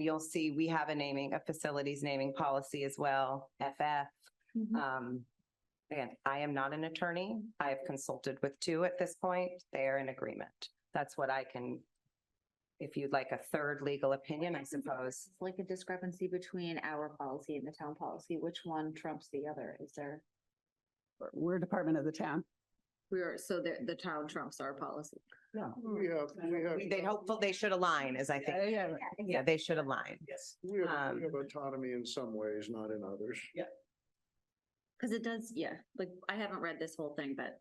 You'll see we have a naming, a facilities naming policy as well, FF. Mm-hmm. Uh, Um, again, I am not an attorney. I have consulted with two at this point. They are in agreement. That's what I can. If you'd like a third legal opinion, I suppose. It's like a discrepancy between our policy and the town policy. Which one trumps the other? Is there? We're- We're a department of the town. We're, so the, the town trumps our policy. No. Hmm. We have, we have, They hopeful they should align, as I think. Yeah, Yeah, they should align. yes. we have, um, we have autonomy in some ways, not in others. Cause it does, yeah, like I haven't read this whole thing, but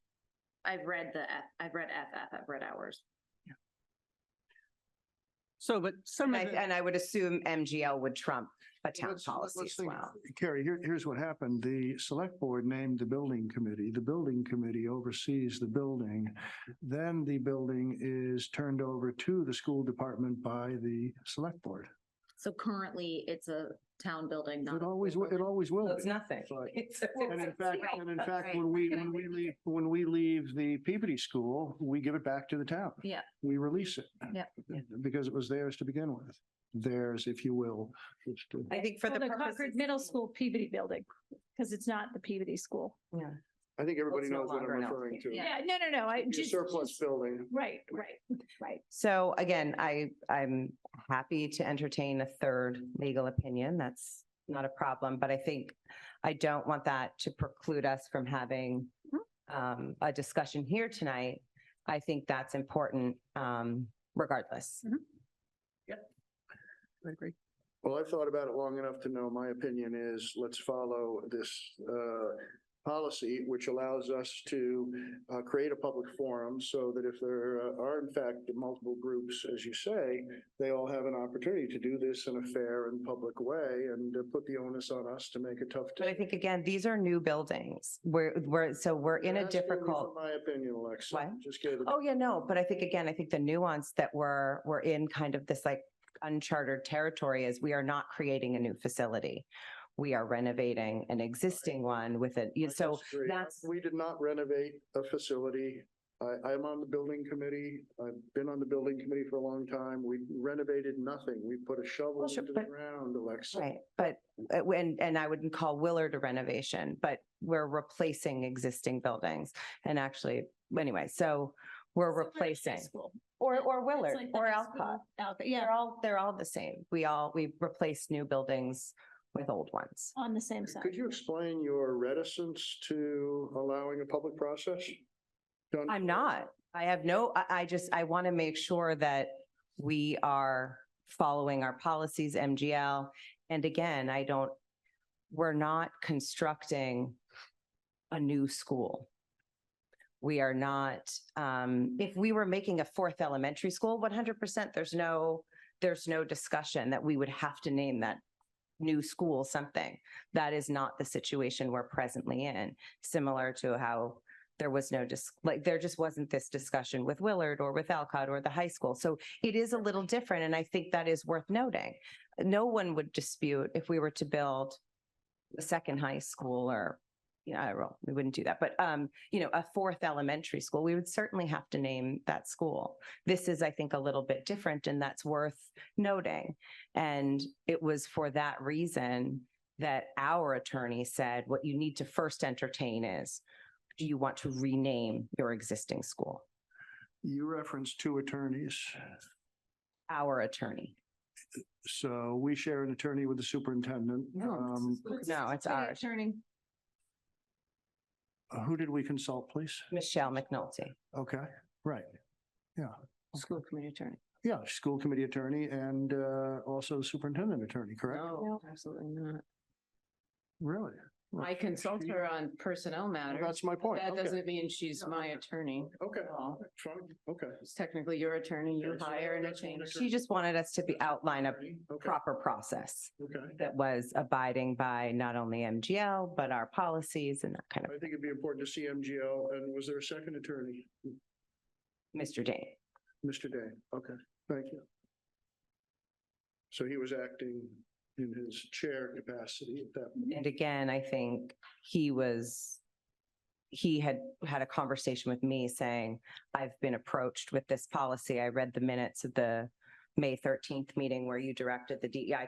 I've read the, F- I've read FF, I've read ours. So, but some And I, of the, and I would assume MGL would trump a town Let's- policy let's as think- well. Carrie, here, here's what happened. The select board named the building committee. The building committee oversees the building. Then the building is turned over to the school department by the select board. So currently it's a town building. not a It always, school wi- it building. always will It's be. nothing. Right. It's- And in fact, Right, and in that's fact, right. when we, when we leave, when we leave the Peabody School, we give it back to the town. Yeah. We release it. Yeah. Because it was theirs to begin with. Theirs, if you will. It's to- I think for Well, the The Concord purposes. Middle School Peabody building, because it's not the Peabody school. Yeah. I think everybody It's no knows what I'm longer an referring to. Yeah. Yeah, no, no, no, I Your just. Surplus just- building. Right, right, right. So again, I, I'm happy to entertain a third legal opinion. That's not a problem, but I think I don't want that to preclude us from having um, a discussion here tonight. I think that's important um, regardless. I agree. Well, I've thought about it long enough to know my opinion is let's follow this uh, policy, which allows us to uh, create a public forum so that if there are in fact multiple groups, as you say, they all have an opportunity to do this in a fair and public way and uh, put the onus on us to make a tough. But I decision. think again, these are new buildings. We're, we're, so we're in a That's really difficult. from My opinion, Alexa. What? Just gave it. Oh, yeah, no, but I think again, I think the nuance that we're, we're in kind of this like uncharted territory is we are not creating a new facility. We are renovating an existing one with it. I You- So disagree. that's- We did not renovate a facility. I, I'm on the building committee. I've been on the building committee for a long time. We renovated nothing. We put a shovel Well, sure, into the but- ground, Alexa. Right, but, uh, when and I wouldn't call Willard a renovation, but we're replacing existing buildings. And actually, anyway, so we're Similar to high replacing, school. or, It's or Willard, like the or high school Alcott. Alcott, They're yeah, all, they're all the same. We all, we replace new buildings with old ones. on the same side. Could you explain your reticence to allowing a public process? Done- I'm not. I have no, I, I just, I want to make sure that we are following our policies, MGL. And again, I don't, we're not constructing a new school. We are not, um, if we were making a fourth elementary school, one hundred percent, there's no, there's no discussion that we would have to name that new school something. That is not the situation we're presently in, similar to how there was no just like there just wasn't this discussion with Willard or with Alcott or the high school. So it is a little different. And I think that is worth noting. No one would dispute if we were to build a second high school or, you know, I don't- we wouldn't do that, but um, you know, a fourth elementary school, we would certainly have to name that school. This is, I think, a little bit different and that's worth noting. And it was for that reason that our attorney said, what you need to first entertain is do you want to rename your existing school? You referenced two attorneys. Our attorney. So we share an attorney with the superintendent. Um, No, it's our attorney, Who did we consult, please? Michelle McNulty. Okay, right. School committee attorney. Yeah, school committee attorney and uh, also superintendent attorney, correct? No, absolutely not. Really? Well, I consult she- her on personnel well, matters. That's my point. That Okay. doesn't mean she's No, my okay. attorney. Okay, at all. fine, okay. She's technically your attorney. You Okay, so hire and that's it what changes. She just wanted us to be outline a Okay, proper process okay. that was abiding by not only MGL, but our policies and that kind I of, think it'd be important to see MGL. And was there a second attorney? Mr. Dane. Mr. Day? Okay, thank you. So he was acting in his chair capacity at that. And again, I think he was, he had had a conversation with me saying, I've been approached with this policy. I read the minutes of the May thirteenth meeting where you directed the E DEI